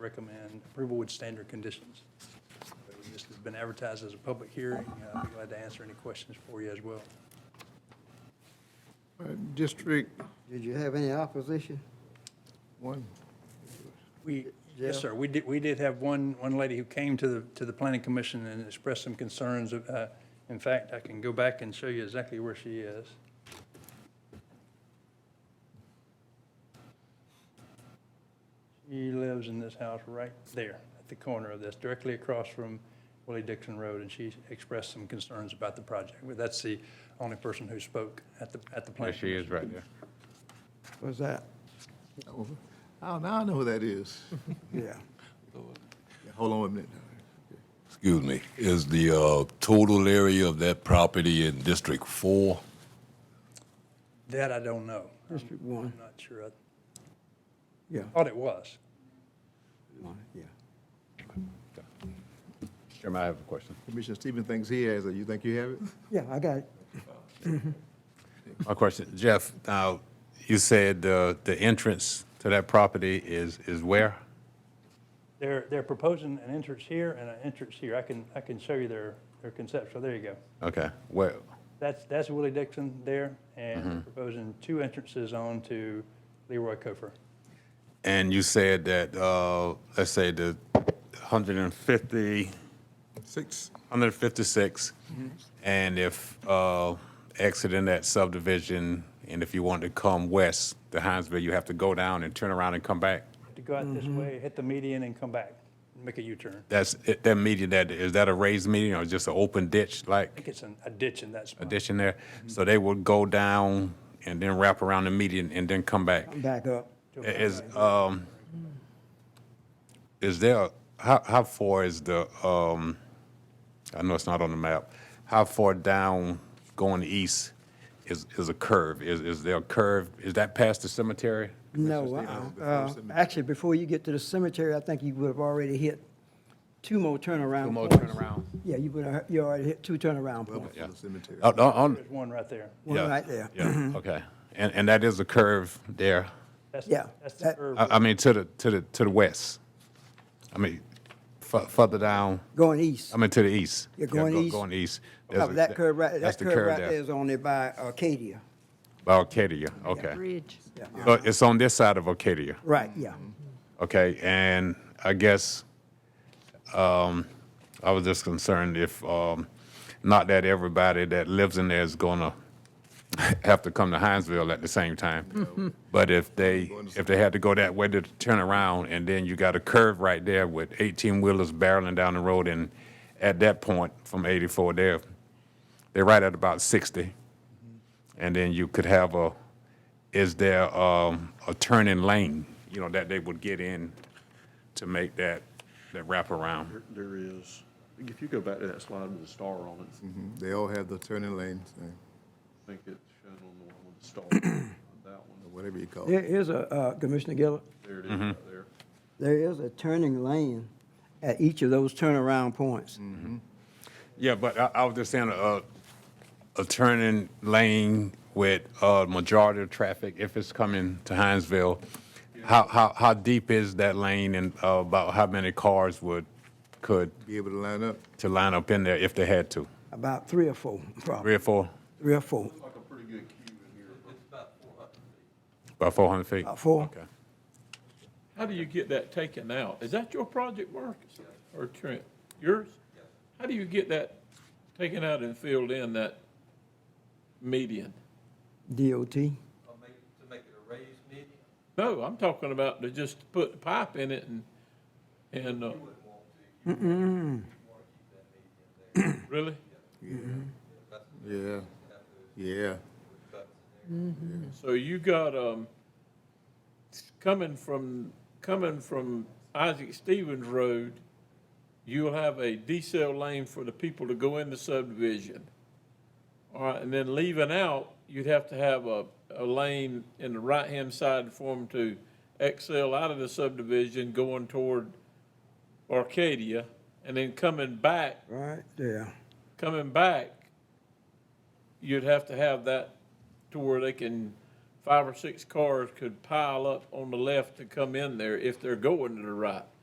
recommend approval with standard conditions. So This has been advertised as a public hearing. Uh, I'd be glad to answer any questions for you as well. All right, District Did you have any opposition? one, We, Yeah. yes, sir, we did, we did have one, one lady who came to the, to the planning commission and expressed some concerns. uh, In fact, I can go back and show you exactly where she is. She lives in this house right there, at the corner of this, directly across from Willie Dixon Road, and she expressed some concerns about the project. But That's the only person who spoke at the, at the There planning. she is, right there. Was that? oh, now now I know who that is. Yeah. Yeah, Hold on a minute. Excuse me, is the uh, total area of that property in District Four? That I don't know. I'm- District one. I'm not sure. I Yeah. thought it was. Yeah. Chairman, I have a question. Commissioner Stevens thinks he has it. You think you have it? Yeah, I got it. A question. Jeff, now, you said uh, the entrance to that property is, is where? They're, they're proposing an entrance here and an entrance here. I can, I can show you their, their conceptual. There you go. Okay, where, That's, that's Willie Dixon there, and they're proposing two entrances on to Leroy Cofer. and you said that, uh, let's say the 150, Six. 156, and if uh, exiting that subdivision, and if you want to come west to Hinesville, you have to go down and turn around and come back? To go out this Mm-hmm. way, hit the median and come back, make a U-turn. That's, that median, that, is that a raised median or just an open ditch like? I think it's an- a ditch in that spot. addition there. So they would go down and then wrap around the median and then come back. I'm back up. to a I- Is, um, is there, how, how far is the, um, I know it's not on the map, how far down going east is, is a curve? Is, is there a curve? Is that past the cemetery? No, Stevens, uh-uh. before Uh, cemetery. actually, before you get to the cemetery, I think you would have already hit two more turnaround. Two more points. turnaround. Yeah, you would have, you already hit two turnaround Up points. to the cemetery. Oh, no, on- There's one right there. One yeah, right there. Yeah, okay. And, and that is a curve there? That's- Yeah, That's the that- curve. I, I mean, to the, to the, to the west? I mean, fu- further down? Going east. I mean, to the east. You're Yeah, going go- east. Going east. There's Up a- That curve right, that's that the curve right there is only by Arcadia. By Arcadia, okay. Bridge. So it's on this side of Arcadia, Right, yeah. Mm-hmm. okay? And I guess, um, I was just concerned if, um, not that everybody that lives in there is gonna have to come to Hinesville at the same time. But if they, if they had to go that way to turn around, and then you got a curve right there with eighteen-wheelers barreling down the road, and at that point, from eighty-four there, they're right at about sixty. And then you could have a, is there um, a turning lane, you know, that they would get in to make that, that wraparound? There- There is, if you go back to that slide with the star on it, Mm-hmm. They all have the turning lanes, uh, I think it's shown on the one with the star, that one, whatever you call There it. is a, uh, Commissioner Gillard, there it is right there. there is a turning lane at each of those turnaround points. Yeah, but I, I was just saying, a, a turning lane with a majority of traffic, if it's coming to Hinesville, how, how, how deep is that lane and uh, about how many cars would, could, Be able to line up. to line up in there if they had to? About three or four, probably, Three or four, three or four, Like a pretty good queue in here, but about 400 feet? about four. Okay. How do you get that taken out? Is that your project, Marcus? Or Trent? Yours? How do you get that taken out and filled in that median? DOT. or make, to make it a raised median? No, I'm talking about to just put the pipe in it and, and, uh, Wouldn't want to, you want to keep that median there, really? Yeah, yeah. So you got, um, coming from, coming from Isaac Stevens Road, you'll have a decel lane for the people to go in the subdivision. All right, and then leaving out, you'd have to have a, a lane in the right-hand side for them to exhale out of the subdivision going toward Arcadia, and then coming back Right there. coming back, you'd have to have that to where they can, five or six cars could pile up on the left to come in there if they're going to the right.